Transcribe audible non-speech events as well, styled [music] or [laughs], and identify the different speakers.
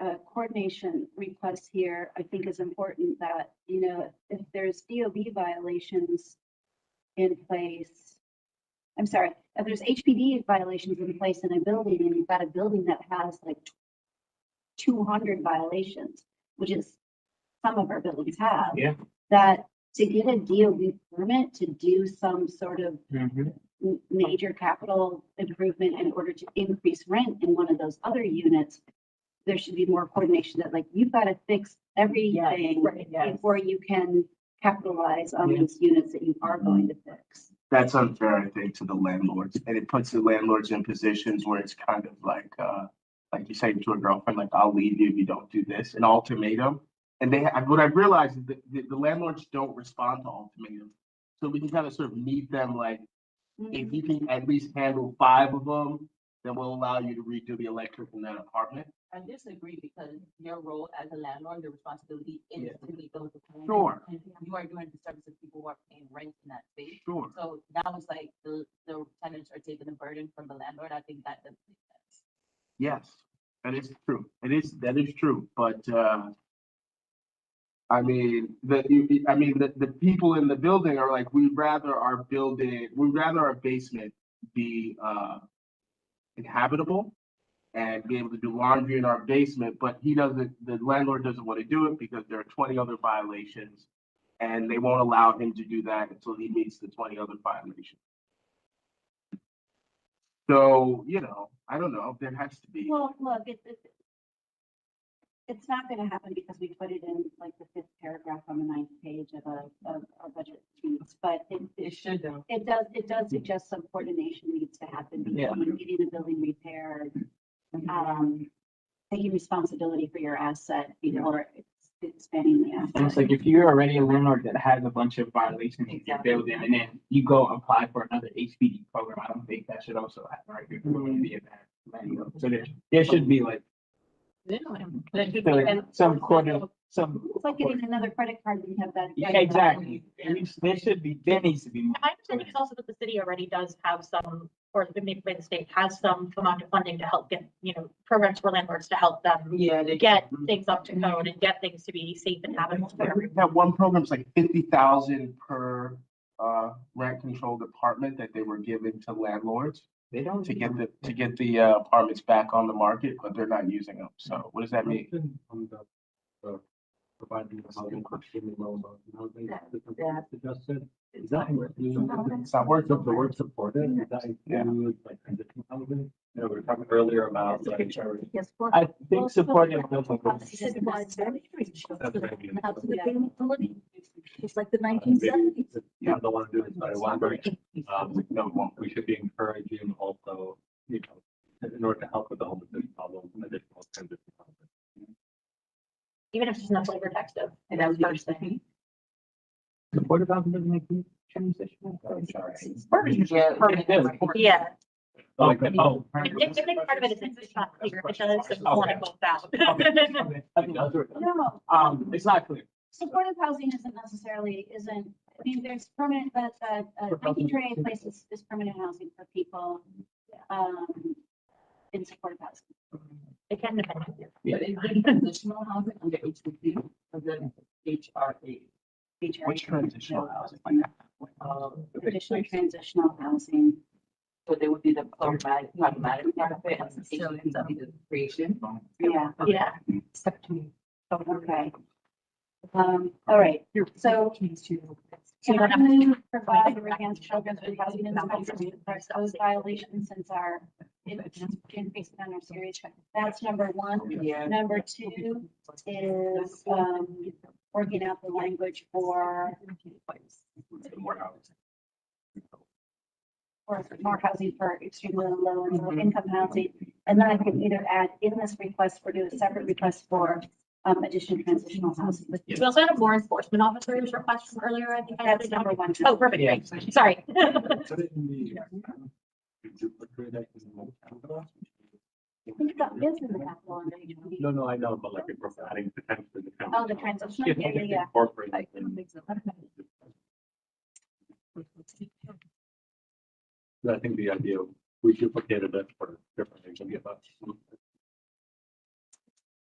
Speaker 1: uh, coordination request here, I think is important that, you know, if there's DOB violations in place, I'm sorry, if there's HPD violations in place in a building and you've got a building that has like two hundred violations, which is some of our buildings have.
Speaker 2: Yeah.
Speaker 1: That to get a DOB permit to do some sort of
Speaker 2: Mm-hmm.
Speaker 1: m- major capital improvement in order to increase rent in one of those other units, there should be more coordination that like, you've got to fix everything
Speaker 3: right, yes.
Speaker 1: before you can capitalize on
Speaker 2: Yeah.
Speaker 1: these units that you are going to fix.
Speaker 4: That's unfair, I think, to the landlords, and it puts the landlords in positions where it's kind of like, uh, like you say to a girlfriend, like, I'll leave you if you don't do this, an ultimatum. And they, ha- what I've realized is that the, the landlords don't respond to ultimatums. So we can kind of sort of meet them like,
Speaker 1: Mm-hmm.
Speaker 4: if you can at least handle five of them, then we'll allow you to redo the electric in that apartment.
Speaker 3: I disagree because your role as a landlord, your responsibility is
Speaker 4: Yeah.
Speaker 3: to meet those requirements.
Speaker 4: Sure.
Speaker 3: And You are doing the service of people who are paying rent in that space.
Speaker 4: Sure.
Speaker 3: So that was like the, the tenants are taking the burden from the landlord. I think that doesn't make sense.
Speaker 4: Yes, that is true. It is, that is true, but, uh, I mean, the, you- you- I mean, the, the people in the building are like, we'd rather our building, we'd rather our basement be, uh, inhabitable and be able to do laundry in our basement, but he doesn't, the landlord doesn't want to do it because there are twenty other violations. And they won't allow him to do that until he meets the twenty other violations. So, you know, I don't know, there has to be.
Speaker 1: Well, look, it, it, it's not gonna happen because we put it in like the fifth paragraph on the ninth page of a, of our budget sheets, but it,
Speaker 3: It
Speaker 1: it
Speaker 3: should though.
Speaker 1: It does, it does suggest some coordination needs to happen
Speaker 4: Yeah.
Speaker 1: between getting the building repaired, um, taking responsibility for your asset before it's expanding the
Speaker 2: And it's
Speaker 1: asset.
Speaker 2: like if you're already a landlord that has a bunch of violations in your
Speaker 3: Exactly.
Speaker 2: building and then you go apply for another HPD program, I don't think that should also happen, right? You're going to be a bad landlord. So there, there should be like some- some quarter, some.
Speaker 1: It's like getting another credit card when you have that.
Speaker 2: Yeah, exactly. At least There should be, there needs to be. more.
Speaker 5: My understanding is also that the city already does have some, or maybe by the state has some amount of funding to help get, you know, programs for landlords to help them
Speaker 3: Yeah, they
Speaker 5: get
Speaker 1: Mm-hmm.
Speaker 5: things up to code and get things to be safe and habitable for everyone.
Speaker 4: That one program's like fifty thousand per uh rent controlled apartment that they were giving to landlords
Speaker 2: They don't.
Speaker 4: to get the, to get the uh, apartments back on the market, but they're not using them. So what does that mean?
Speaker 6: On the, uh, providing the housing question loan, now they,
Speaker 3: Yeah.
Speaker 6: the, the just said,
Speaker 3: It's
Speaker 6: is
Speaker 3: not
Speaker 6: that
Speaker 3: worth
Speaker 6: include
Speaker 4: It's not worth
Speaker 6: the
Speaker 4: it.
Speaker 6: word supported, Does that
Speaker 4: Yeah.
Speaker 6: include like transition housing? You know, we were talking earlier about like.
Speaker 1: Yes, for.
Speaker 2: I think supporting.
Speaker 7: It's like the nineteen seventies.
Speaker 6: Yeah, the one doing, but I wonder, um,
Speaker 4: No, it won't.
Speaker 6: we should be encouraging also, you know, in order to help with the homelessness problem, additional transition housing.
Speaker 5: Even if it's not flavor text of.
Speaker 3: And that was the first thing.
Speaker 2: Supportive housing doesn't make you transitional. Oh, I'm sorry.
Speaker 3: Yeah.
Speaker 5: Yeah,
Speaker 6: Like, oh,
Speaker 5: I think, I think part of it is it's not clear, which is political foul.
Speaker 2: I think that's right.
Speaker 1: No,
Speaker 2: Um, it's not clear.
Speaker 1: supportive housing isn't necessarily, isn't, I mean, there's permanent, but, uh, uh, I think training places is permanent housing for people, um, in supportive housing.
Speaker 5: [laughs] It can depend.
Speaker 3: But it's like transitional housing under E HPP, under HRA.
Speaker 1: feature.
Speaker 4: Which transitional housing?
Speaker 3: Um,
Speaker 1: Additional transitional housing.
Speaker 3: So they would be the automatic, automatic benefit and associations of the E creation.
Speaker 1: Yeah,
Speaker 5: Yeah,
Speaker 1: okay. Um, all right, so.
Speaker 5: So
Speaker 1: Can
Speaker 5: then
Speaker 1: I
Speaker 5: I'm-
Speaker 1: move provider against children with housing and substance abuse? Those violations since our increase in our series, that's number one.
Speaker 3: Yeah.
Speaker 1: Number two is, um, working out the language for, for more housing for extremely low and
Speaker 3: Mm-hmm.
Speaker 1: low income housing. And then I can either add in this request or do a separate request for, um, additional transitional housing.
Speaker 5: we also had a more enforcement officer's request from earlier, I think. I
Speaker 1: That's
Speaker 5: added
Speaker 1: number
Speaker 5: number.
Speaker 1: one.
Speaker 5: Oh, perfect,
Speaker 2: Yeah.
Speaker 5: Thanks. sorry.
Speaker 1: [laughs]
Speaker 6: Put it in the- Did you put it in the-
Speaker 1: I think that is in the capital under HPD.
Speaker 6: No, no, I know, but like if we're adding potentially the.
Speaker 1: Oh, the transition, yeah, yeah, yeah.
Speaker 6: Incorporate.
Speaker 3: I
Speaker 6: in-
Speaker 3: don't think so.
Speaker 6: I think the idea, we duplicated it for different things, we get that.